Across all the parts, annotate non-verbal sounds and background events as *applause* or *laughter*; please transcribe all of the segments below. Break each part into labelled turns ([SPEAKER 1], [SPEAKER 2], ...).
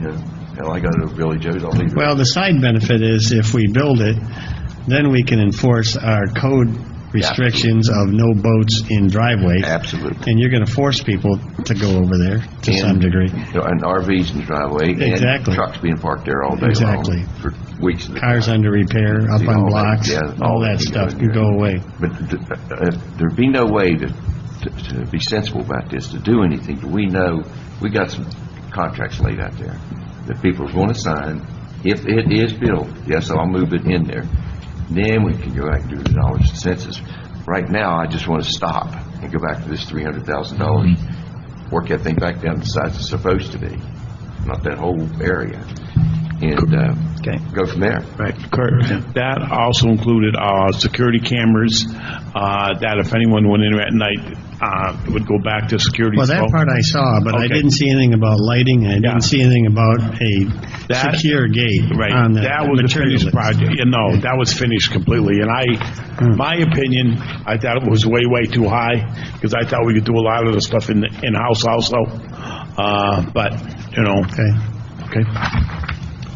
[SPEAKER 1] you know, hell, I go to Billy Joe's, I'll leave.
[SPEAKER 2] Well, the side benefit is if we build it, then we can enforce our code restrictions of no boats in driveways.
[SPEAKER 1] Absolutely.
[SPEAKER 2] And you're going to force people to go over there to some
[SPEAKER 1] And-
[SPEAKER 2] degree.
[SPEAKER 1] You know, And RVs in the driveway. And
[SPEAKER 2] Exactly.
[SPEAKER 1] trucks being parked there all day long.
[SPEAKER 2] Exactly.
[SPEAKER 1] For weeks. at a
[SPEAKER 2] Cars
[SPEAKER 1] time.
[SPEAKER 2] under repair, up
[SPEAKER 1] See,
[SPEAKER 2] on
[SPEAKER 1] all that,
[SPEAKER 2] blocks,
[SPEAKER 1] yeah, all
[SPEAKER 2] all that
[SPEAKER 1] that
[SPEAKER 2] stuff
[SPEAKER 1] can
[SPEAKER 2] can
[SPEAKER 1] go
[SPEAKER 2] go away.
[SPEAKER 1] But th- uh, there'd be no way to, to- to be sensible about this, to do anything. Do We know, we got some contracts laid out there that people are going to sign. If it is built, yes, I'll move it in there. Then we can go back and do the dollars and census. Right now, I just want to stop and go back to this three hundred thousand dollars,
[SPEAKER 2] Mm-hmm.
[SPEAKER 1] work that thing back down to the size it's supposed to be, not that whole area, and, uh,
[SPEAKER 2] Okay.
[SPEAKER 1] go from there.
[SPEAKER 3] Right, correct. That also included uh, security cameras, uh, that if anyone went in at night, uh, it would go back to security.
[SPEAKER 2] Well, that
[SPEAKER 3] So-
[SPEAKER 2] part I saw, but I
[SPEAKER 3] Okay.
[SPEAKER 2] didn't see anything about lighting, and I
[SPEAKER 3] Yeah.
[SPEAKER 2] didn't see anything about a
[SPEAKER 3] That-
[SPEAKER 2] secure gate
[SPEAKER 3] Right,
[SPEAKER 2] on the
[SPEAKER 3] that was a
[SPEAKER 2] material
[SPEAKER 3] finished
[SPEAKER 2] list.
[SPEAKER 3] project, you know, that was finished completely, and I,
[SPEAKER 2] Hmm.
[SPEAKER 3] my opinion, I thought it was way, way too high, because I thought we could do a lot of the stuff in, in-house also, uh, but, you know,
[SPEAKER 2] Okay,
[SPEAKER 3] okay.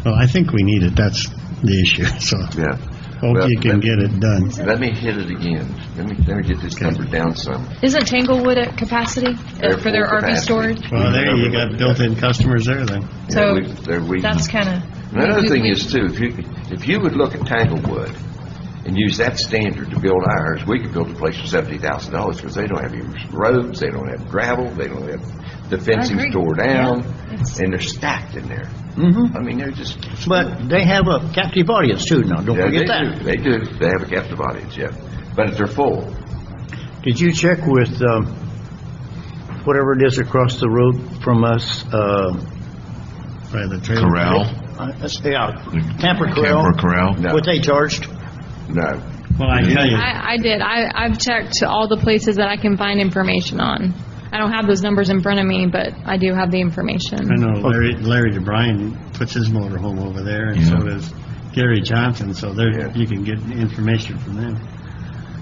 [SPEAKER 2] well, I think we need it, that's the issue, *laughs* so
[SPEAKER 1] Yeah.
[SPEAKER 2] hope
[SPEAKER 1] Well,
[SPEAKER 2] you can get it done.
[SPEAKER 1] Let me hit it again. Let me, let me get this number down some.
[SPEAKER 4] Isn't Tanglewood at capacity uh, for their
[SPEAKER 1] Airport
[SPEAKER 4] RV
[SPEAKER 1] capacity.
[SPEAKER 4] storage?
[SPEAKER 2] Well, there, you got built-in customers there, then.
[SPEAKER 4] So,
[SPEAKER 1] Yeah, we- there we-
[SPEAKER 4] That's kind of.
[SPEAKER 1] Another thing is too, if you, if you would look at Tanglewood and use that standard to build ours, we could build a place for seventy thousand dollars because they don't have any roads, they don't have gravel, they don't have, the fencing's
[SPEAKER 4] agree.
[SPEAKER 1] tore down,
[SPEAKER 4] Yeah, it's-
[SPEAKER 1] and they're stacked in there.
[SPEAKER 2] Mm-hmm.
[SPEAKER 1] I mean, they're just.
[SPEAKER 5] But they have a captive audience too now, don't
[SPEAKER 1] Yeah, they
[SPEAKER 5] forget
[SPEAKER 1] do.
[SPEAKER 5] that.
[SPEAKER 1] They do. They have a captive audience, yeah. But if they're full,
[SPEAKER 5] Did you check with, um, whatever it is across the road from us, uh,
[SPEAKER 2] By the trailer.
[SPEAKER 6] Corral,
[SPEAKER 5] uh, let's- yeah, Tampa
[SPEAKER 6] Camper
[SPEAKER 5] Corral?
[SPEAKER 6] Corral.
[SPEAKER 1] No.
[SPEAKER 5] What they charged?
[SPEAKER 1] no.
[SPEAKER 2] Well, I tell you,
[SPEAKER 4] I, I did. I, I've checked all the places that I can find information on. I don't have those numbers in front of me, but I do have the
[SPEAKER 2] I
[SPEAKER 4] information.
[SPEAKER 2] know Larry, Larry DeBryan puts his motor home over there, and so does Gary Johnson, so there,
[SPEAKER 1] Yeah.
[SPEAKER 2] you can get information from them.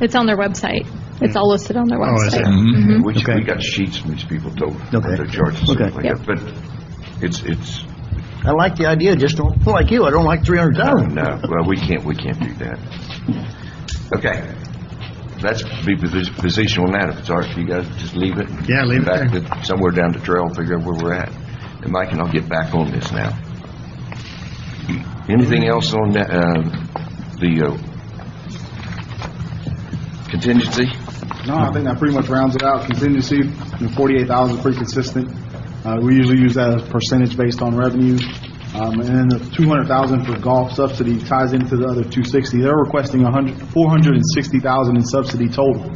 [SPEAKER 4] It's on their website. It's all listed on their
[SPEAKER 2] Oh, is it?
[SPEAKER 4] website.
[SPEAKER 1] We, we
[SPEAKER 5] Okay.
[SPEAKER 1] got sheets from these people told what
[SPEAKER 5] Okay.
[SPEAKER 1] their charges are
[SPEAKER 5] Okay.
[SPEAKER 1] like that, but it's, it's,
[SPEAKER 5] I like the idea, just don't, like you, I don't like three hundred thousand.
[SPEAKER 1] no, uh, well, we can't, we can't do that. Okay, let's be posi- position on that, if it's all right for you guys, just leave it.
[SPEAKER 2] Yeah, leave it
[SPEAKER 1] Back to Somewhere down the trail, figure out where we're at. And Mike and I'll get back on this now. Anything else on that, um, the uh, contingency?
[SPEAKER 7] No, I think that pretty much rounds it out. Contingency, the forty-eight thousand, pretty consistent. Uh, we usually use that as percentage based on revenue. Um, and then the two hundred thousand for golf subsidy ties into the other two sixty. They're requesting a hundred, four hundred and sixty thousand in subsidy total.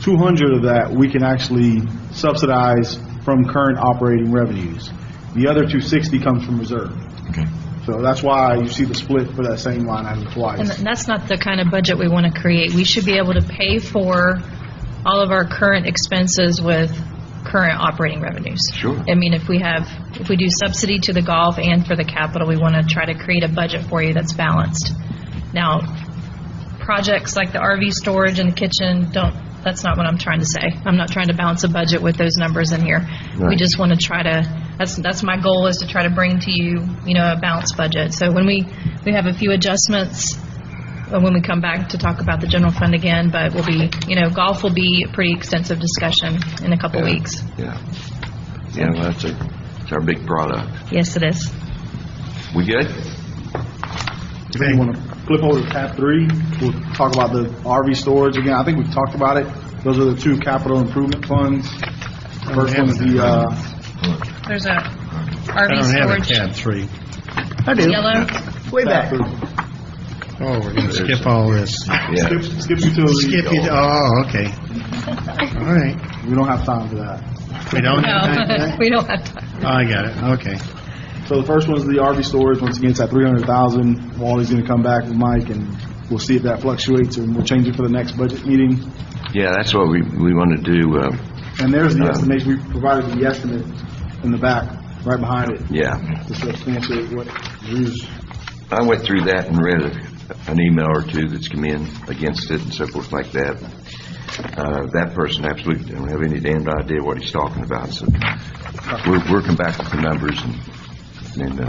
[SPEAKER 7] Two hundred of that, we can actually subsidize from current operating revenues. The other two sixty comes from reserve.
[SPEAKER 6] Okay.
[SPEAKER 7] So that's why you see the split for that same line item twice.
[SPEAKER 8] And that's not the kind of budget we want to create. We should be able to pay for all of our current expenses with current operating revenues.
[SPEAKER 1] Sure.
[SPEAKER 8] I mean, if we have, if we do subsidy to the golf and for the capital, we want to try to create a budget for you that's balanced. Now, projects like the RV storage and the kitchen, don't, that's not what I'm trying to say. I'm not trying to balance a budget with those numbers in here. We
[SPEAKER 1] Right.
[SPEAKER 8] just want to try to, that's, that's my goal, is to try to bring to you, you know, a balanced budget. So when we, we have a few adjustments, uh, when we come back to talk about the general fund again, but we'll be, you know, golf will be a pretty extensive discussion in a couple weeks.
[SPEAKER 1] Yeah. Yeah, well, that's a, it's our big product.
[SPEAKER 8] Yes, it is.
[SPEAKER 1] We good?
[SPEAKER 7] If you want to flip over to tab three, we'll talk about the RV storage again. I think we've talked about it. Those are the two capital improvement funds. First one's the, uh,
[SPEAKER 8] There's a
[SPEAKER 2] I
[SPEAKER 8] RV
[SPEAKER 2] don't have a
[SPEAKER 8] storage,
[SPEAKER 2] tab three.
[SPEAKER 5] I do,
[SPEAKER 8] yellow.
[SPEAKER 5] way back.
[SPEAKER 2] Oh, we're going to skip all this.
[SPEAKER 1] Yeah.
[SPEAKER 7] skip, skip utilities.
[SPEAKER 2] Skip it, oh, okay. All right,
[SPEAKER 7] We don't have time for that.
[SPEAKER 2] we don't have
[SPEAKER 8] *laughs* No,
[SPEAKER 2] that?
[SPEAKER 8] we don't have time.
[SPEAKER 2] Oh, I got it, okay.
[SPEAKER 7] So the first one's the RV storage. Once again, it's at three hundred thousand. Wally's gonna come back with Mike and we'll see if that fluctuates and we'll change it for the next budget meeting.
[SPEAKER 1] Yeah, that's what we, we want to do, uh,
[SPEAKER 7] And there's the estimation. We provided the estimate in the back, right behind it,
[SPEAKER 1] yeah.
[SPEAKER 7] to substantiate what Drew's
[SPEAKER 1] I went through that and read a- an email or two that's come in against it and so forth like that. Uh, that person absolutely don't have any damned idea what he's talking about, so we're, we're come back with the numbers and, and uh,